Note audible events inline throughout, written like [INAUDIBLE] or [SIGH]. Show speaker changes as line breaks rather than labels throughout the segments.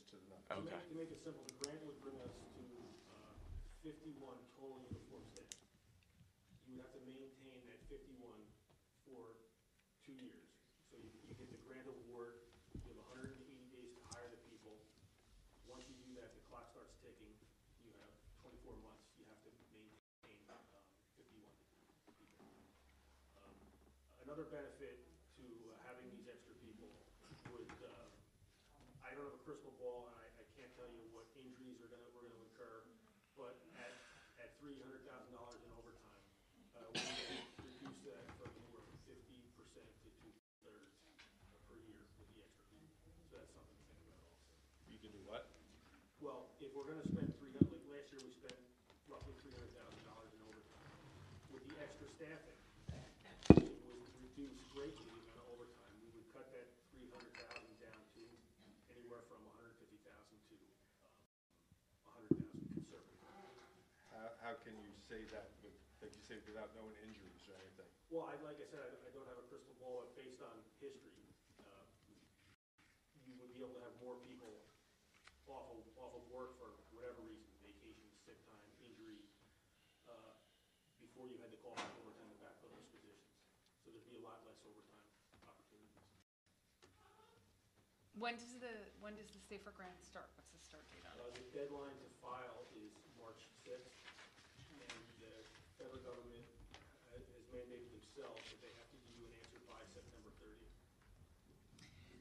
To
Okay.
make- To make it simple, the grant would bring us to uh, fifty-one total uniform staff. You would have to maintain that fifty-one for two years. So you, you get the grant award, you have hundred and eighty days to hire the people. Once you do that, the clock starts ticking, you have twenty-four months, you have to maintain um, fifty-one people. Um, Another benefit to uh, having these extra people would, uh, I don't have a crystal ball, and I, I can't tell you what injuries are gonna, we're gonna incur, but at, at three hundred thousand dollars in overtime, uh, we can reduce that from anywhere from fifty percent to two-thirds per year with the extra people. So that's something to think about also.
You can do what?
Well, if we're gonna spend three hundred, like last year, we spent roughly three hundred thousand dollars in overtime. With the extra staffing, it would reduce greatly the amount of overtime. We would cut that three hundred thousand down to anywhere from a hundred fifty thousand to, um, a hundred thousand conservative.
How, how can you say that with, like you say, without knowing injuries or anything?
Well, I, like I said, I, I don't have a crystal ball, but based on history, uh, you would be able to have more people off of, off of work for whatever reason, vacation, sick time, injury, uh, before you had to call for overtime to backfill those positions. So there'd be a lot less overtime opportunities.
When does the, when does the Safer Grant start? What's the start date on it?
Uh, the deadline to file is March sixth, and the federal government ha- has mandated themselves that they have to give you an answer by September thirtieth.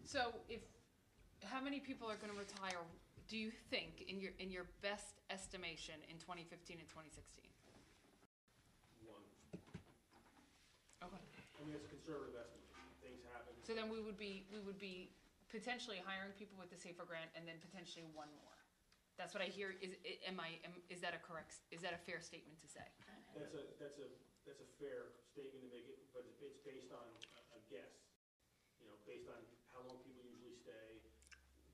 So if, how many people are gonna retire, do you think, in your, in your best estimation, in twenty fifteen and twenty sixteen?
One,
Okay.
I mean, it's a conservative estimate, things happen.
So then we would be, we would be potentially hiring people with the Safer Grant and then potentially one more. That's what I hear, is, i- am I, am, is that a correct, is that a fair statement to say?
That's a, that's a, that's a fair statement to make, it, but it's it's based on a- a guess. You know, based on how long people usually stay,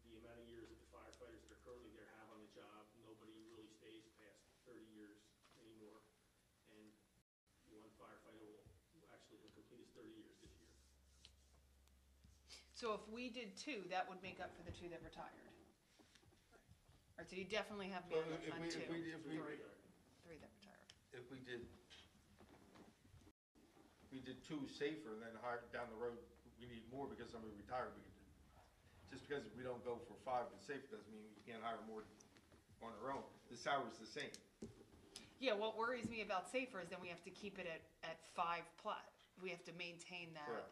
the amount of years that the firefighters that are currently there have on the job. Nobody really stays past thirty years anymore. And one firefighter will will actually have completed his thirty years this year.
So if we did two, that would make up for the two that retired. Or do you definitely have
Well,
bandwidth
if
on
we- if
two,
we- if we-
three, three that retired?
If we did, we did two safer and then hired down the road, we need more because somebody retired, we could, just because we don't go for five and safe doesn't mean we can't hire more on our own. The salary's the same.
Yeah, what worries me about safer is then we have to keep it at, at five plus. We have to maintain that.
Correct.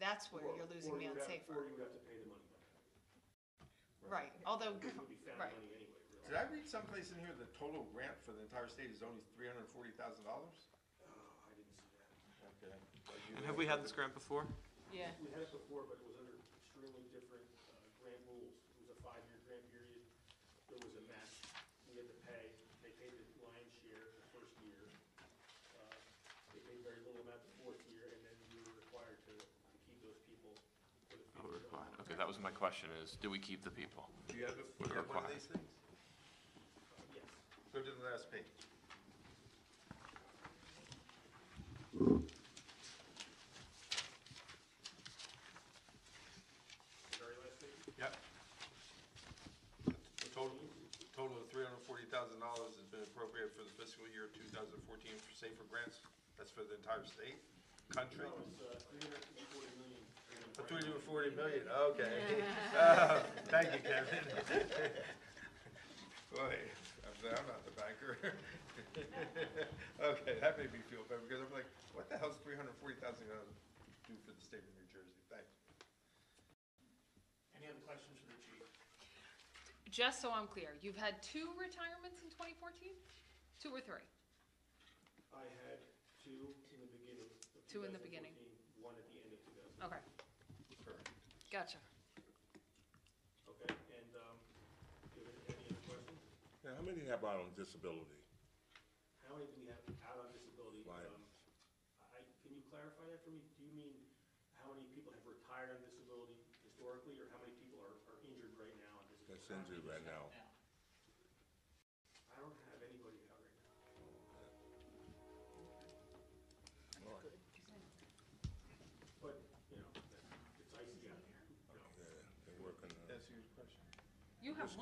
That's where
Or-
you're losing
or
me
you
on
would have- Or
safer.
you would have to pay the money back.
Right, although,
It would
[COUGHS]
be found
Right.
money anyway, really.
Did I read someplace in here the total grant for the entire state is only three hundred and forty thousand dollars?
Oh, I didn't see that.
Okay.
And have we had this grant before?
yeah,
We had it before, but it was under extremely different uh, grant rules. It was a five-year grant period. There was a match we had to pay. They paid the lion's share the first year. Uh, They paid very little amount the fourth year, and then we were required to to keep those people for the
Oh,
future.
required. Okay, that was my question is, do we keep the people?
Do you have, a- do you have one of these things?
Uh, Yes.
Go to the last page.
The Very last thing.
Yep. The Total, total of three hundred and forty thousand dollars has been appropriated for the fiscal year two thousand fourteen for safer grants. That's for the entire state, country.
No, it's uh, three hundred and forty million.
Oh, Three hundred and forty million, okay. [LAUGHS] Oh, Thank you, Kevin. [LAUGHS] Boy, I'm glad I'm not the banker. [LAUGHS] Okay, that made me feel better because I'm like, what the hell's three hundred and forty thousand dollars do for the state of New Jersey? Thanks.
Any other questions for the chief?
just so I'm clear, you've had two retirements in twenty fourteen? Two or three?
I had two in the beginning of
Two in the beginning.
2014, One at the end of two thousand.
Okay,
Perfect.
gotcha.
Okay, and, um, do you have any other questions?
Now, how many have out on disability?
How many do we have out on disability?
Right.
Um, I, can you clarify that for me? Do you mean how many people have retired on disability historically, or how many people are, are injured right now on disability?
That's injured right now.
I don't have anybody out right now. But, you know, it's icy out there, you know.
Yeah, They're working on it.
That's your question.
You have